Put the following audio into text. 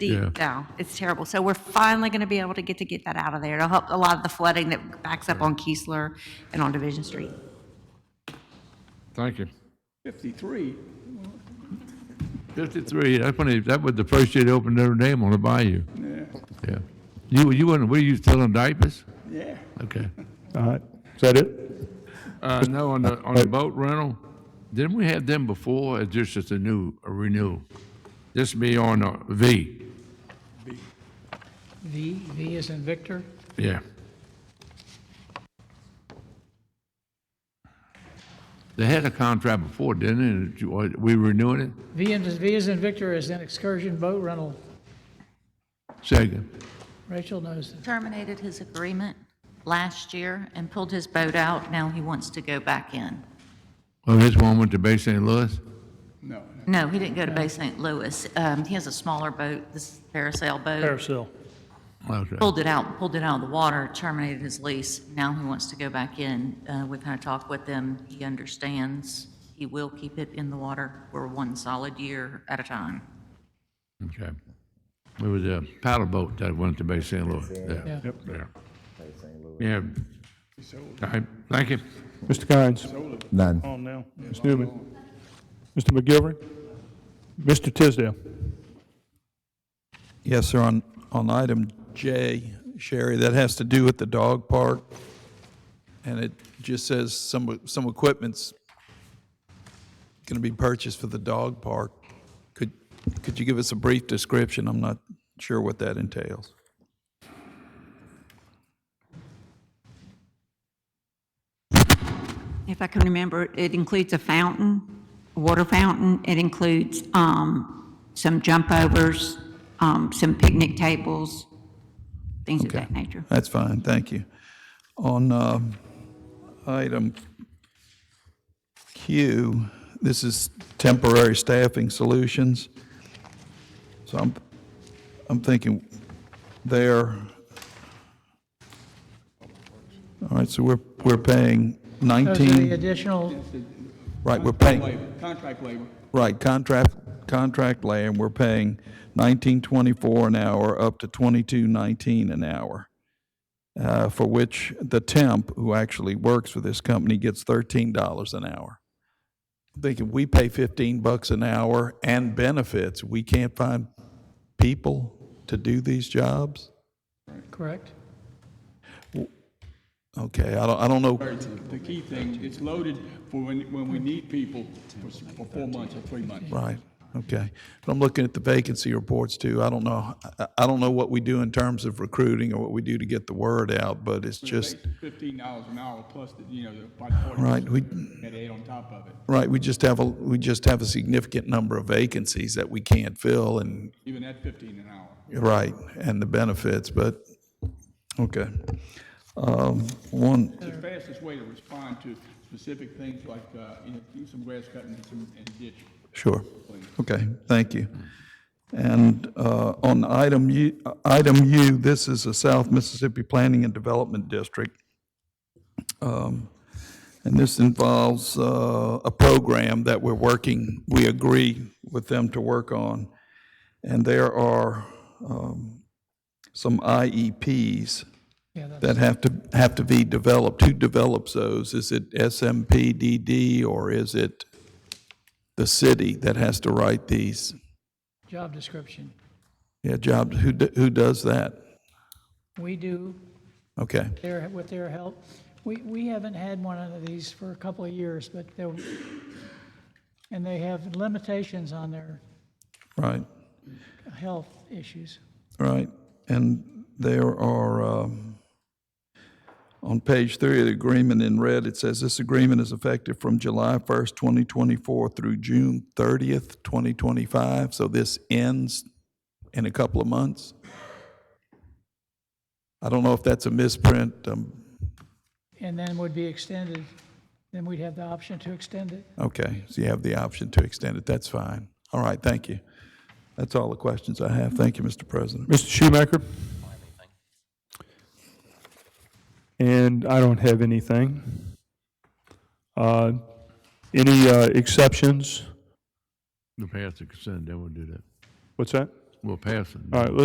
The, no, it's terrible. So we're finally going to be able to get to get that out of there. It'll help a lot of the flooding that backs up on Keesler and on Division Street. Thank you. 53, 53, that's when they, that was the first year they opened Notre Dame on the bayou. Yeah. You, you weren't, were you still in diapers? yeah. Okay. All right, is that it? Uh, no, on the, on the boat rental, didn't we have them before, or just as a new, a renewal? This be on a V, V, V is in Victor. yeah. They had a contract before, didn't they, and we renewing it? V in, V is in Victor is an excursion boat rental. Second, Rachel knows that. terminated his agreement last year and pulled his boat out. Now he wants to go back in. oh, this one went to Bay St. Louis? No, No, he didn't go to Bay St. Louis. Um, he has a smaller boat, this is a parasail boat. Parasail. Okay. Pulled it out, pulled it out of the water, terminated his lease. Now he wants to go back in. Uh, we've had a talk with him. He understands. He will keep it in the water for one solid year at a time. Okay. It was a paddle boat that went to Bay St. Louis. Yeah. Yeah. Yeah. Yeah. All right, thank you. Mr. Kynes, None. on now. Ms. Newman. Mr. McGilvery. Mr. Tisdale. Yes, sir, on, on item J, Sherry, that has to do with the dog park. And it just says some, some equipment's going to be purchased for the dog park. Could, could you give us a brief description? I'm not sure what that entails. If I can remember, it includes a fountain, a water fountain. It includes um, some jump overs, um, some picnic tables, things of that nature. That's fine, thank you. On um, item Q, this is temporary staffing solutions. So I'm, I'm thinking there, all right, so we're, we're paying Those are the 19, additional, right, we're paying, labor, contract labor. Right, contract, contract layer, and we're paying nineteen twenty-four an hour up to twenty-two nineteen an hour. Uh, for which the temp, who actually works for this company, gets thirteen dollars an hour. I'm Thinking we pay fifteen bucks an hour and benefits, we can't find people to do these jobs? correct? Okay, I don't, I don't know. The key thing, it's loaded for when, when we need people for s- for four months or three months. Right, okay. But I'm looking at the vacancy reports too. I don't know, I- I don't know what we do in terms of recruiting or what we do to get the word out, but it's just, Fifteen dollars an hour plus, the you know, the about forty. right, we, That add on top of it, right, we just have a, we just have a significant number of vacancies that we can't fill and, even at fifteen an hour. right, and the benefits, but, okay. Um, One, The fastest way to respond to specific things like, uh, you know, do some grass cutting and some, and ditch. Sure. Okay, thank you. And uh, on item U, item U, this is the South Mississippi Planning and Development District. Um, And this involves uh, a program that we're working, we agree with them to work on. And there are um, some E IEPs Yeah, that's that have to, have to be developed. Who develops those? Is it SMPDD or is it the city that has to write these? job description. Yeah, jobs, who, d- who does that? We do, Okay, their, with their help. We, we haven't had one of these for a couple of years, but they'll, and they have limitations on their right, health issues. right. And there are, um, on page three of the agreement in red, it says, "This agreement is effective from July 1st, 2024 through June 30th, 2025." So this ends in a couple of months? I don't know if that's a misprint. um, And then would be extended, then we'd have the option to extend it. Okay, so you have the option to extend it. That's fine. All right, thank you. That's all the questions I have. Thank you, Mr. President. Mr. Schumaker. And I don't have anything. Uh, Any uh, exceptions? The pass the consent, then we'll do that. What's that? we'll pass it. All right, let's